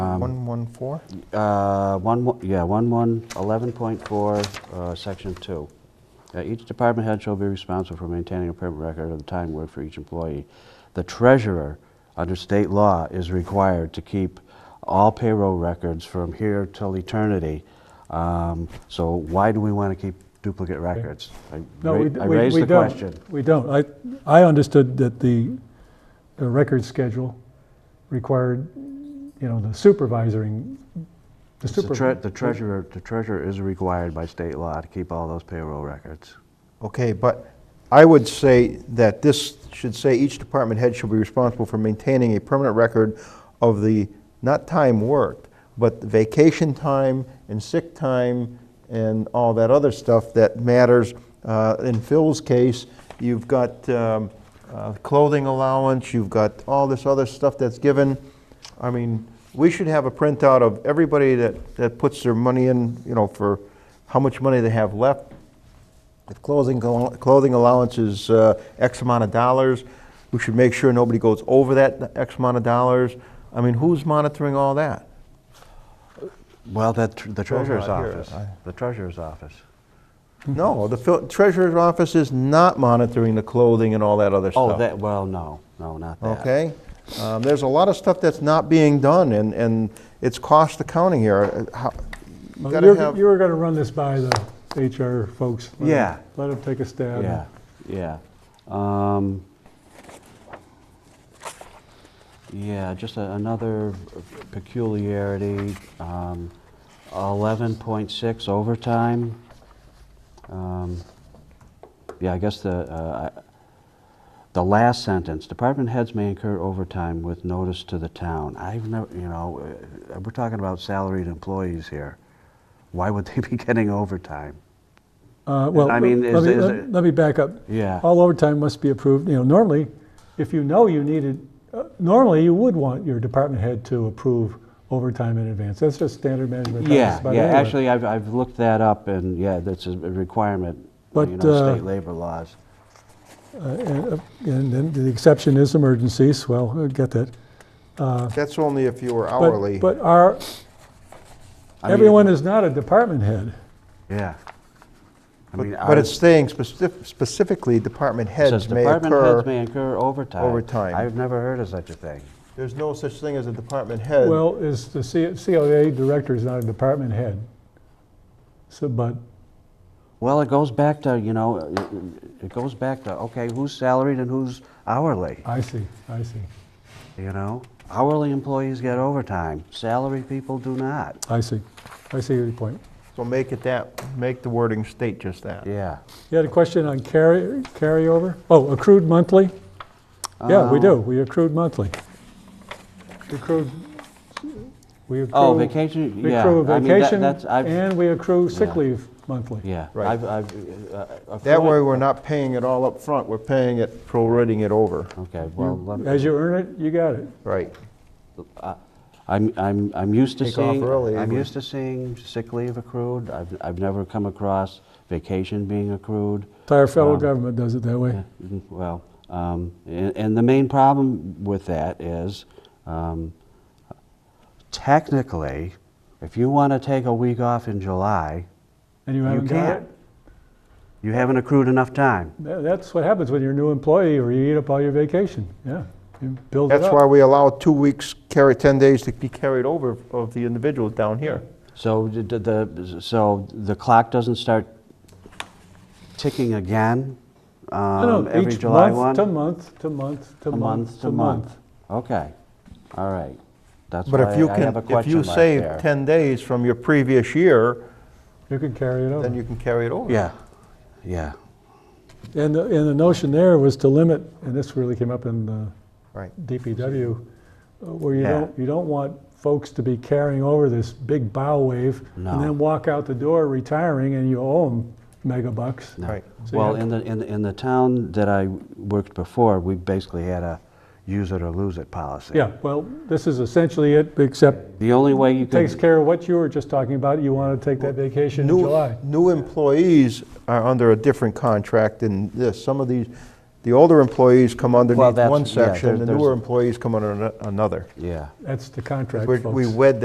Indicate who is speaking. Speaker 1: Um, 114?
Speaker 2: Uh, One, mo- yeah, one, one, 11.4, uh, section two. Uh, Each department head shall be responsible for maintaining a permanent record of the time worked for each employee. The treasurer, under state law, is required to keep all payroll records from here till eternity. Um, So why do we want to keep duplicate records? I
Speaker 3: No,
Speaker 2: ra-
Speaker 3: we,
Speaker 2: I
Speaker 3: we-
Speaker 2: raised
Speaker 3: we
Speaker 2: the
Speaker 3: don't.
Speaker 2: question.
Speaker 3: We don't. I, I understood that the, the record schedule required, you know, the supervising, the
Speaker 2: It's The tre-
Speaker 3: super.
Speaker 2: the treasurer, the treasurer is required by state law to keep all those payroll records.
Speaker 1: Okay, but I would say that this should say each department head shall be responsible for maintaining a permanent record of the, not time worked, but vacation time and sick time and all that other stuff that matters. Uh, In Phil's case, you've got um, uh, clothing allowance, you've got all this other stuff that's given. I mean, we should have a printout of everybody that, that puts their money in, you know, for how much money they have left, if clothing, clothing allowance is uh, X amount of dollars, we should make sure nobody goes over that X amount of dollars. I mean, who's monitoring all that?
Speaker 2: Well, that, tr- the treasurer's
Speaker 1: not here.
Speaker 2: office,
Speaker 1: I-
Speaker 2: the treasurer's office. Hmm.
Speaker 1: No, the fil- treasurer's office is not monitoring the clothing and all that other stuff.
Speaker 2: Oh, that, well, no, no, not that.
Speaker 1: Okay? Um, There's a lot of stuff that's not being done, and, and it's cost accounting here. Uh, how- You
Speaker 3: Well,
Speaker 1: gotta
Speaker 3: you're- You
Speaker 1: have,
Speaker 3: were gonna run this by the HR folks. Let 'em-
Speaker 2: Yeah.
Speaker 3: Let them take a stab.
Speaker 2: Yeah, yeah. Um, Yeah, just a- another peculiarity, um, 11.6 overtime. Um, Yeah, I guess the, uh, I- the last sentence, department heads may incur overtime with notice to the town. I've never, you know, uh, we're talking about salaried employees here. Why would they be getting overtime?
Speaker 3: Uh, Well,
Speaker 2: I
Speaker 3: let
Speaker 2: mean, is-
Speaker 3: me,
Speaker 2: is
Speaker 3: let-
Speaker 2: it-
Speaker 3: let me back up.
Speaker 2: Yeah.
Speaker 3: All overtime must be approved. You know, normally, if you know you needed, uh, normally you would want your department head to approve overtime in advance. That's just standard management practice.
Speaker 2: Yeah,
Speaker 3: by
Speaker 2: yeah,
Speaker 3: anyone.
Speaker 2: actually, I've, I've looked that up, and yeah, that's a requirement, you
Speaker 3: But,
Speaker 2: know,
Speaker 3: uh,
Speaker 2: state labor laws.
Speaker 3: Uh, And uh, and then the exception is emergencies, well, I get that.
Speaker 1: that's only if you were
Speaker 3: But-
Speaker 1: hourly.
Speaker 3: But our,
Speaker 2: I mean,
Speaker 3: everyone is not a department head.
Speaker 2: Yeah. I mean,
Speaker 1: But
Speaker 2: ours-
Speaker 1: but it's saying specif- specifically, department
Speaker 2: it says
Speaker 1: heads may
Speaker 2: department heads
Speaker 1: occur.
Speaker 2: may incur overtime.
Speaker 1: overtime.
Speaker 2: I've never heard of such a thing.
Speaker 1: There's no such thing as a department head.
Speaker 3: Well, is the C- COA director is not a department head. So, but,
Speaker 2: Well, it goes back to, you know, it- it goes back to, okay, who's salaried and who's hourly,
Speaker 3: I see, I see,
Speaker 2: you know? Hourly employees get overtime, salary people do not.
Speaker 3: I see, I see your point.
Speaker 1: So make it that, make the wording state just that.
Speaker 2: Yeah.
Speaker 3: You had a question on carry, carryover? Oh, accrued monthly? Yeah, we
Speaker 2: Um,
Speaker 3: do, we accrued monthly. We Accrued, we accrue.
Speaker 2: Oh, vacation,
Speaker 3: We
Speaker 2: yeah.
Speaker 3: accrue
Speaker 2: I mean, that-
Speaker 3: vacation
Speaker 2: that's- I've-
Speaker 3: and we accrue sick
Speaker 2: Yeah.
Speaker 3: leave monthly.
Speaker 2: Yeah.
Speaker 1: Right.
Speaker 2: I've- I've, uh, uh,
Speaker 1: That
Speaker 2: accruing-
Speaker 1: way, we're not paying it all up front, we're paying it, prorating it over.
Speaker 2: Okay, well,
Speaker 3: You-
Speaker 2: let me-
Speaker 3: As you earn it, you got it.
Speaker 1: Right.
Speaker 2: I'm, I'm, I'm used to
Speaker 1: Take off
Speaker 2: seeing,
Speaker 1: early,
Speaker 2: I'm
Speaker 1: we-
Speaker 2: used to seeing sick leave accrued. I've, I've never come across vacation being accrued.
Speaker 3: Entire federal
Speaker 2: Um,
Speaker 3: government does it that way.
Speaker 2: Mm, Well, um, and, and the main problem with that is, um, technically, if you want to take a week off in July,
Speaker 3: And you
Speaker 2: you
Speaker 3: haven't got
Speaker 2: can't.
Speaker 3: it?
Speaker 2: You haven't accrued enough time.
Speaker 3: Tha- That's what happens when you're a new employee or you eat up all your vacation, yeah. You build it
Speaker 1: That's why
Speaker 3: up.
Speaker 1: we allow two weeks, carry, 10 days to be carried over of the individuals down here.
Speaker 2: So d- d- the, so the clock doesn't start ticking again
Speaker 3: No,
Speaker 2: um,
Speaker 3: no,
Speaker 2: every
Speaker 3: each
Speaker 2: July
Speaker 3: month
Speaker 2: 1?
Speaker 3: To month, to month, to
Speaker 2: A
Speaker 3: month, to month.
Speaker 2: Okay, all right. That's
Speaker 1: But
Speaker 2: why
Speaker 1: if you
Speaker 2: I
Speaker 1: can,
Speaker 2: have a
Speaker 1: if
Speaker 2: question
Speaker 1: you
Speaker 2: mark
Speaker 1: save
Speaker 2: there.
Speaker 1: 10 days from your previous year,
Speaker 3: You could carry it over.
Speaker 1: then you can carry it over.
Speaker 2: Oh. Yeah, yeah,
Speaker 3: And, the- and the notion there was to limit, and this really came up in the
Speaker 1: Right.
Speaker 3: DPW, uh, where you
Speaker 2: Yeah.
Speaker 3: don't, you don't want folks to be carrying over this big bow wave
Speaker 2: No.
Speaker 3: and then walk out the door retiring and you owe them mega bucks.
Speaker 2: no.
Speaker 1: Right.
Speaker 3: So you
Speaker 2: Well,
Speaker 3: have-
Speaker 2: in the, in, the- in the town that I worked before, we basically had a use it or lose it policy.
Speaker 3: Yeah, well, this is essentially it, except
Speaker 2: The only way you
Speaker 3: takes
Speaker 2: could,
Speaker 3: care of what you were just talking about. You want to take that vacation in
Speaker 1: New-
Speaker 3: July.
Speaker 1: New employees are under a different contract than this. Some of these, the older employees come underneath
Speaker 2: that's-
Speaker 1: one
Speaker 2: yeah,
Speaker 1: section, the
Speaker 2: there-
Speaker 1: newer
Speaker 2: there's-
Speaker 1: employees come under ano- another.
Speaker 2: yeah.
Speaker 3: That's the contract,
Speaker 1: We're-
Speaker 3: folks.
Speaker 1: We wed